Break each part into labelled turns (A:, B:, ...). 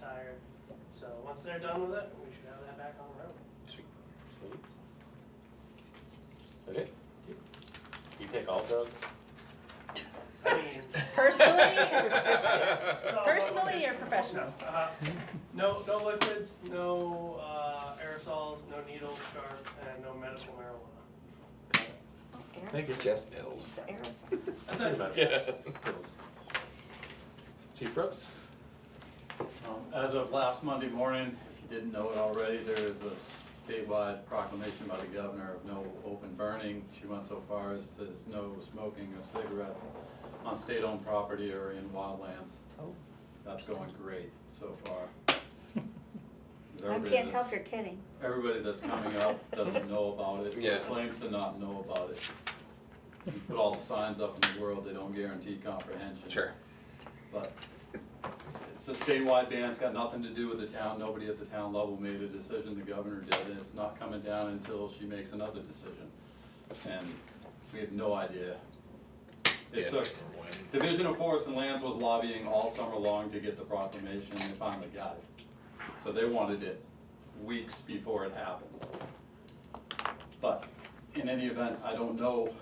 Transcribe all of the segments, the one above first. A: tired. So once they're done with it, we should have that back on the road.
B: Sweet. Sweet. Okay. You take all drugs?
A: I mean,
C: Personally or prescription?
A: it's all
C: Personally or
A: liquids.
C: professional?
A: Uh, No, no liquids, no uh, aerosols, no needles, sharp, and no medical marijuana.
D: Thank you.
B: Just pills.
C: It's an aerosol.
B: Pretty
A: Essentially,
B: much. Yeah. Pills. Chief Brooks?
D: Um, As of last Monday morning, if you didn't know it already, there is a statewide proclamation by the governor of no open burning. She went so far as to there's no smoking of cigarettes on state-owned property or in wildlands. That's going great so far.
C: I can't tell if you're kidding.
D: Everybody that's coming up doesn't know about it,
B: Yeah.
D: or claims to not know about it. You put all the signs up in the world, they don't guarantee comprehension. But it's a statewide ban, it's got nothing to do with the town, nobody at the town level made a decision, the governor did, and it's not coming down until she makes another decision. And we have no idea. It took, Division of Forest and Lands was lobbying all summer long to get the proclamation, and they finally got it. So they wanted it weeks before it happened. But in any event, I don't know,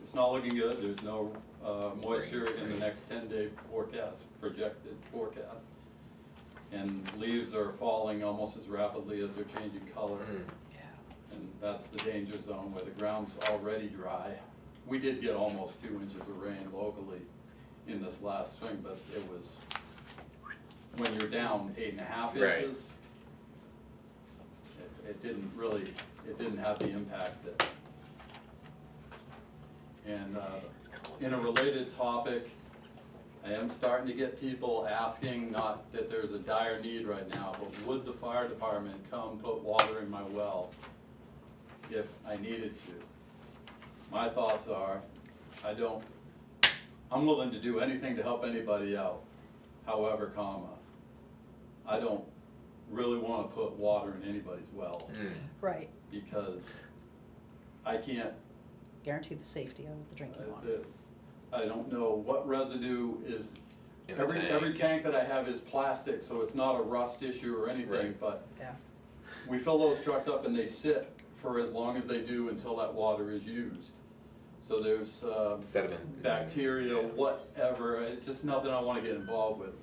D: it's not looking good, there's no uh, moisture in the next ten day forecast, projected forecast. And leaves are falling almost as rapidly as they're changing color. And that's the danger zone where the ground's already dry. We did get almost two inches of rain locally in this last swing, but it was, when you're down eight and a half
B: Right.
D: inches, it, it didn't really, it didn't have the impact that. And, uh, in a related topic, I am starting to get people asking, not that there's a dire need right now, but would the fire department come put water in my well if I needed to? My thoughts are, I don't, I'm willing to do anything to help anybody out, however, comma, I don't really wanna put water in anybody's well,
B: Mm.
E: Right,
D: because I can't
E: guarantee the safety of the drinking
D: uh,
E: water.
D: the- I don't know what residue is,
B: In the
D: every, every
B: tank.
D: tank that I have is plastic, so it's not a rust issue or anything,
B: Right.
D: but
E: Yeah,
D: we fill those trucks up and they sit for as long as they do until that water is used. So there's, um,
B: Sediment.
D: bacteria, whatever, it's just nothing I wanna get involved with.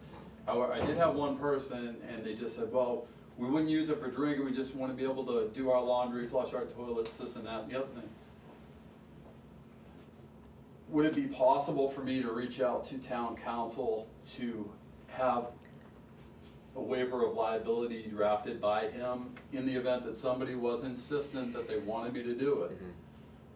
D: However, I did have one person and they just said, well, we wouldn't use it for drinking, we just wanna be able to do our laundry, flush our toilets, this and that, and the other thing. Would it be possible for me to reach out to town council to have a waiver of liability drafted by him in the event that somebody was insistent that they wanted me to do it?
B: Mm-hmm.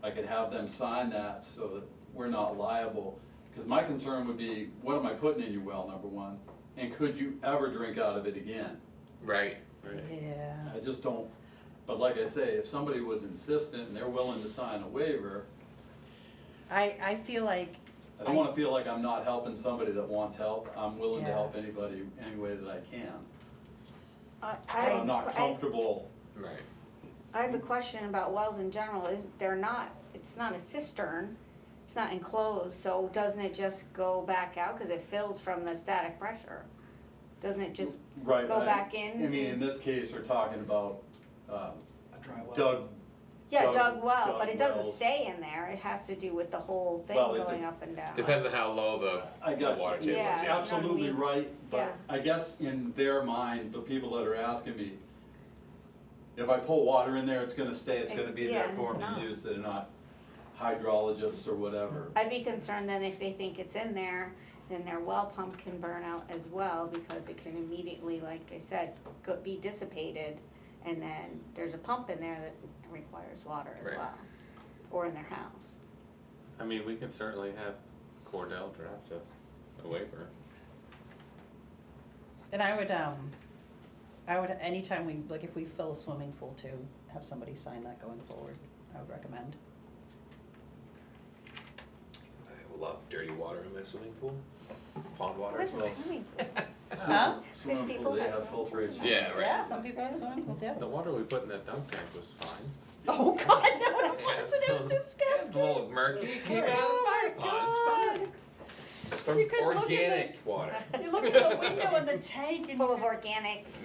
D: I could have them sign that so that we're not liable. Because my concern would be, what am I putting in your well, number one? And could you ever drink out of it again?
B: Right.
E: yeah,
D: I just don't, but like I say, if somebody was insistent and they're willing to sign a waiver,
E: I, I feel like,
D: I don't wanna feel like I'm not helping somebody that wants help. I'm willing to
E: Yeah.
D: help anybody any way that I can.
C: I,
D: But I'm not
C: I,
D: comfortable,
B: Right.
C: I have a question about wells in general, is they're not, it's not a cistern, it's not enclosed, so doesn't it just go back out, cause it fills from the static pressure? Doesn't it just,
D: right?
C: Go
D: I-
C: back
D: I
C: into-
D: mean, in this case, we're talking about, uh,
F: A dry well.
D: Doug,
C: yeah,
D: Dug-
C: dug well,
D: dug
C: but it doesn't
D: wells.
C: stay in there, it has to do with the whole thing
D: Well, it
C: going
D: de-
C: up and down.
B: Depends on how low the,
D: I
B: the
D: got you.
B: water table
C: Yeah.
B: is, yeah.
D: absolutely
C: Yeah.
D: right,
C: Yeah.
D: but I guess in their mind, the people that are asking me, if I pull water in there, it's gonna stay, it's gonna be
C: Yeah,
D: there
C: and
D: for
C: it's
D: me
C: not.
D: to use, they're not hydrologists or whatever.
C: I'd be concerned then if they think it's in there, then their well pump can burn out as well, because it can immediately, like I said, go, be dissipated. And then there's a pump in there that requires water as
B: Right.
C: well, or in their house.
B: I mean, we can certainly have Cordell draft a, a waiver.
E: and I would, um, I would, anytime we, like if we fill a swimming pool too, have somebody sign that going forward, I would recommend.
B: I love dirty water in my swimming pool. Pond water.
C: This is
B: nice.
C: swimming pool.
E: Huh?
D: Swimming
C: Because
D: pool,
C: people
D: they
C: have
D: have
C: swimming pools
D: filtration.
C: now.
B: Yeah, right.
E: Yeah, some people have swimming pools, yeah.
B: The water we put in that dump tank was fine.
E: Oh, God, no, it wasn't, it
B: It's
E: was
B: a
E: disgusting. Oh,
B: little murky. It came out of the fire pond. It's fine. It's
E: You could look in the-
B: organic water.
E: You look at the window of the tank and
C: full of organics.